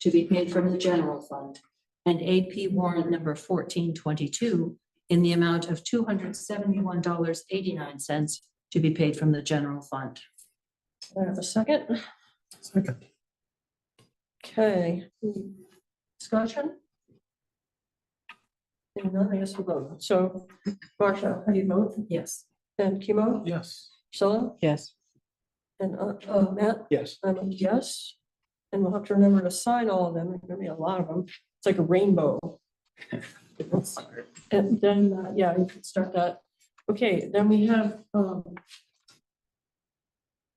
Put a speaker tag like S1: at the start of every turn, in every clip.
S1: to be paid from the general fund, and AP warrant number fourteen twenty-two in the amount of two hundred seventy-one dollars eighty-nine cents to be paid from the general fund.
S2: Do I have a second?
S3: Second.
S2: Okay. Discussion? Seeing none, I guess we'll vote. So Marcia, how do you vote?
S1: Yes.
S2: And Kimo?
S3: Yes.
S2: Priscilla?
S4: Yes.
S2: And uh, uh, Matt?
S3: Yes.
S2: I'm a yes. And we'll have to remember to sign all of them. There's gonna be a lot of them. It's like a rainbow. And then, uh, yeah, you can start that. Okay, then we have, um,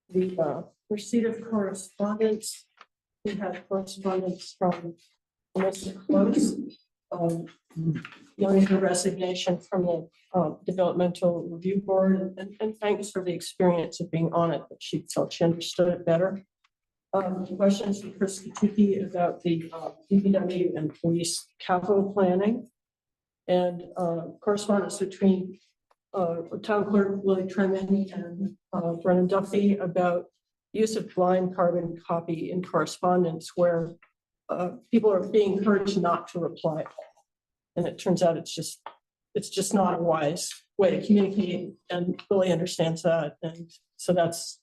S2: the, uh, receipt of correspondence. We have correspondence from Melissa Close, um, knowing her resignation from the, um, Developmental Review Board. And, and thanks for the experience of being on it, but she felt she understood it better. Um, questions from Chris Kutuki about the uh, DPW and police capital planning. And uh, correspondence between uh, town clerk Willie Tremaine and uh, Brennan Duffy about use of blind carbon copy in correspondence where uh, people are being encouraged not to reply. And it turns out it's just, it's just not a wise way to communicate and Willie understands that. And so that's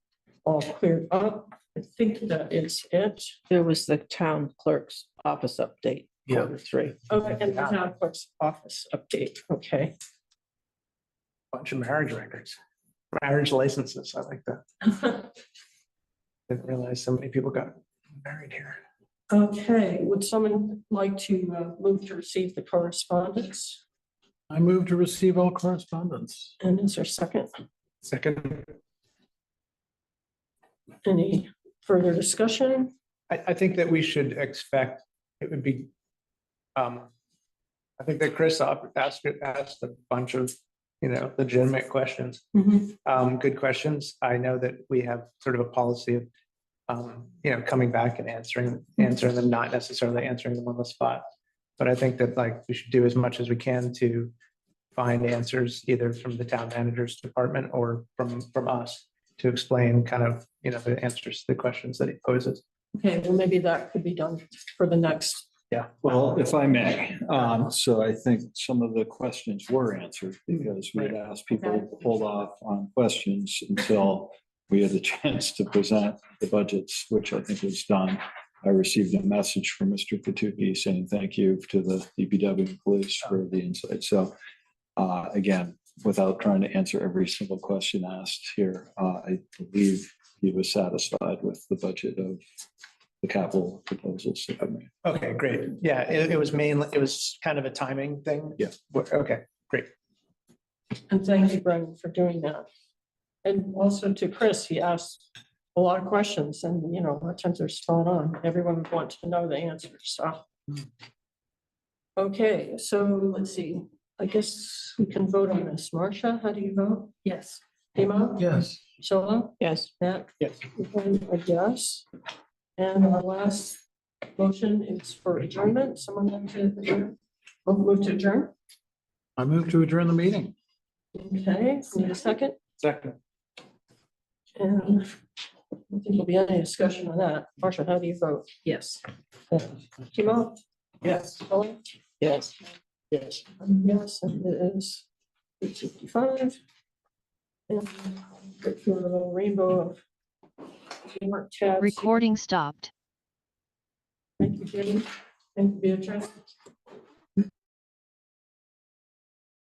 S2: all cleared up. I think that is it.
S4: There was the town clerk's office update.
S3: Yeah.
S4: quarter Three.
S2: Okay, and the town clerk's office update, okay.
S3: Bunch of marriage records, marriage licenses. I like that. Didn't realize so many people got married here.
S2: Okay, would someone like to uh, move to receive the correspondence?
S3: I move to receive all correspondence.
S2: And is there a second?
S3: Second,
S2: Any further discussion?
S3: I, I think that we should expect, it would be, um, I think that Chris op- asked, asked a bunch of, you know, legitimate questions. Um, good questions. I know that we have sort of a policy of, um, you know, coming back and answering, answering them, not necessarily answering them on the spot. But I think that like we should do as much as we can to find answers either from the town manager's department or from, from us to explain kind of, you know, the answers, to the questions that he poses.
S2: Okay, well, maybe that could be done for the next.
S3: Yeah.
S5: Well, if I may, um, so I think some of the questions were answered because we had asked people to hold off on questions until we had the chance to present the budgets, which I think was done. I received a message from Mr. Katuki saying thank you to the DPW police for the insight. So uh, again, without trying to answer every single question asked here, uh, I believe he was satisfied with the budget of the capital proposals that I made.
S3: Okay, great. Yeah, it, it was mainly, it was kind of a timing thing.
S5: Yeah.
S3: Wha- Okay,
S2: And thank you, Brendan, for doing that. And also to Chris, he asked a lot of questions and, you know, a lot of times they're spot on. Everyone would want to know the answers, so. Okay, so let's see. I guess we can vote on this. Marcia, how do you vote?
S1: Yes.
S2: Hemo?
S3: Yes.
S2: Shola?
S4: Yes.
S2: Matt?
S3: Yes.
S2: And a yes. And our last motion is for adjournment. Someone like to adjourn? Oh, move to adjourn?
S3: I move to adjourn the meeting.
S2: Okay, need a second?
S3: Second.
S2: And I don't think there'll be any discussion on that. Marcia, how do you vote?
S1: Yes.
S2: Kimo?
S3: Yes.
S2: Colin?
S4: Yes.
S3: Yes.
S2: Um, Yes, and it is eight fifty-five. And go through a little rainbow of Mark tabs.
S6: Recording stopped.
S2: Thank you, Jenny. Thank you, Beatrice.